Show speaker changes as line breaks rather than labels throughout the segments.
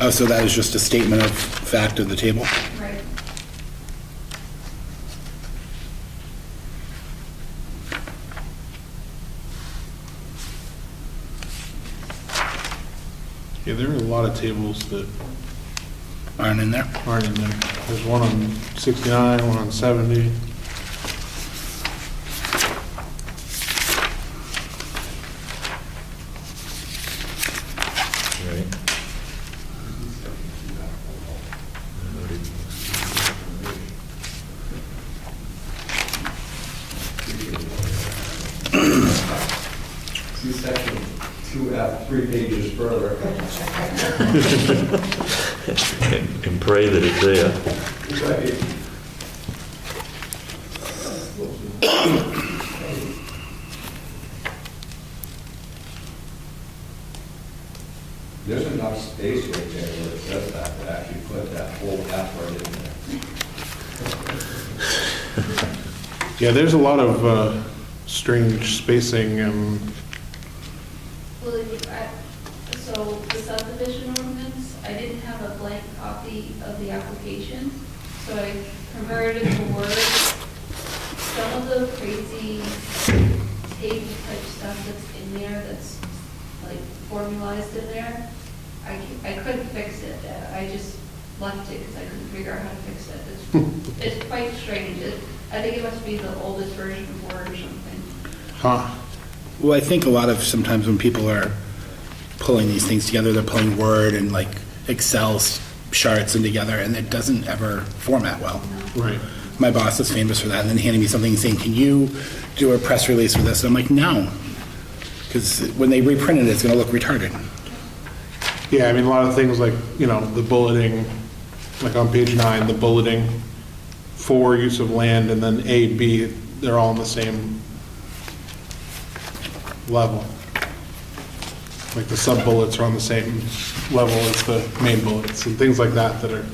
Oh, so that is just a statement of fact of the table?
Right.
Yeah, there are a lot of tables that
Aren't in there?
aren't in there. There's one on 69, one on 70.
Right.
See section two F, three pages further.
And pray that it's there.
There's enough space right there where it says that, to actually put that whole half right in there.
Yeah, there's a lot of uh, strange spacing and,
Well, if I- so the subdivision ordinance, I didn't have a blank copy of the application, so I converted the words. Some of the crazy table type stuff that's in there, that's like formalized in there, I, ca- I couldn't fix it. Uh, I just left it because I couldn't figure out how to fix it. It's, it's quite strange. It- I think it must be the oldest version of Word or something.
huh,
Well, I think a lot of, sometimes when people are pulling these things together, they're pulling Word and like Excel s- charts and together, and it doesn't ever format well.
right.
My boss is famous for that, and then handing me something and saying, can you do a press release with this? And I'm like, no, because when they reprint it, it's going to look retarded.
Yeah, I mean, a lot of things like, you know, the bulleting, like on page nine, the bulleting for use of land and then A, B, they're all on the same level. Like the sub-bullets are on the same level as the main bullets and things like that that are,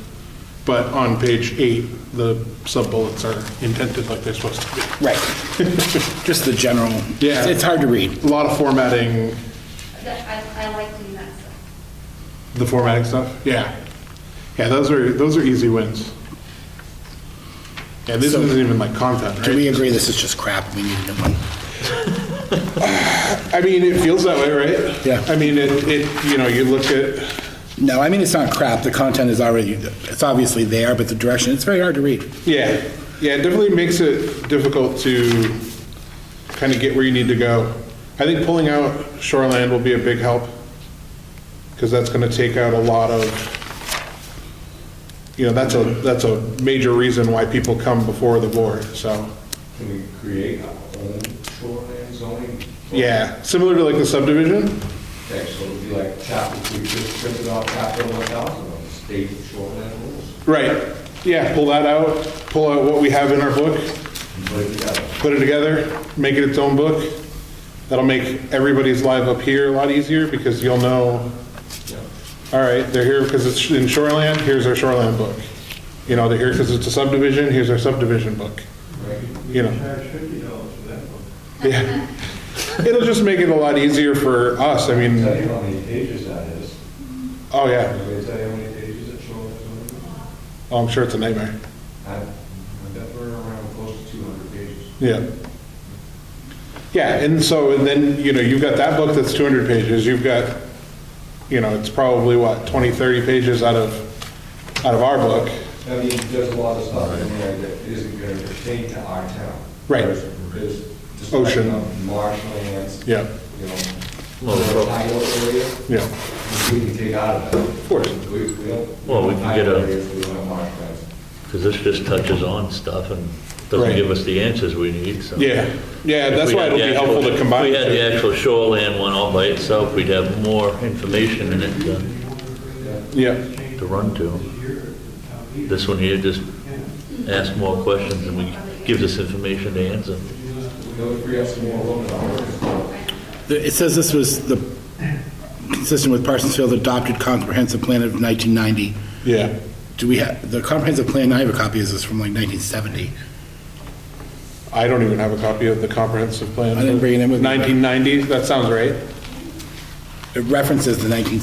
but on page eight, the sub-bullets are indented like they're supposed to be.
Right. Just the general,
Yeah.
it's hard to read.
A lot of formatting,
That- I, I like doing that stuff.
the formatting stuff, yeah. Yeah, those are, those are easy wins. Yeah, this
So-
isn't even like content,
Do we
right?
agree this is just crap? We need a new one.
I mean, it feels that way, right?
Yeah.
I mean, it, it, you know, you look at,
No, I mean, it's not crap. The content is already, it's obviously there, but the direction, it's very hard to read.
yeah, yeah, it definitely makes it difficult to kind of get where you need to go. I think pulling out Shoreland will be a big help, because that's gonna take out a lot of, you know, that's a, that's a major reason why people come before the board, so.
Can we create our own shoreline zoning?
Yeah, similar to like the subdivision?
Okay, so it'll be like chapter, we just printed off chapter one thousand of the state shoreline rules,
Right. Yeah, pull that out, pull out what we have in our book,
and put it together.
put it together, make it its own book. That'll make everybody's life up here a lot easier because you'll know, all right, they're here because it's in Shoreland. here's our Shoreland book. You know, they're here because it's a subdivision, here's our subdivision book. You know. Yeah. It'll just make it a lot easier for us, I
I'll Tell
mean,
you how many pages that is.
oh yeah,
Can we tell you how many pages that shoreline zoning? is?
oh, I'm sure it's a nightmare.
I I bet we're around close to two hundred pages.
Yeah. Yeah, and so, and then, you know, you've got that book that's 200 pages, you've got, you know, it's probably, what, 20, 30 pages out of, out of our book.
I mean, there's a lot of stuff in there that isn't going to pertain to our town.
Right.
There's- There's just um,
Ocean.
marshlands.
Yeah.
You know,
Well, the-
tidal area,
Yeah,
we can take out of that. Of
course.
We, we don't.
Well, we can get a-
Tidal areas, We don't have marshlands.
Because this just touches on stuff and
Right.
doesn't give us the answers we need, so.
yeah, yeah,
If
that's
we
why
had
it'll
the
be
actual-
helpful to combine.
If we had
the
the
two.
actual shoreland one all by itself, we'd have more information in it to-
Yeah,
to run to. This one here just asks more questions and we, gives us information to answer.
Those free up some more room in our work.
The- It says this was the, consistent with Parsons Field adopted comprehensive plan of 1990.
yeah,
Do we have, the comprehensive plan, I have a copy of this from like 1970.
I don't even have a copy of the comprehensive plan.
I didn't bring it in with me.
1990, that sounds right.
It references the 1970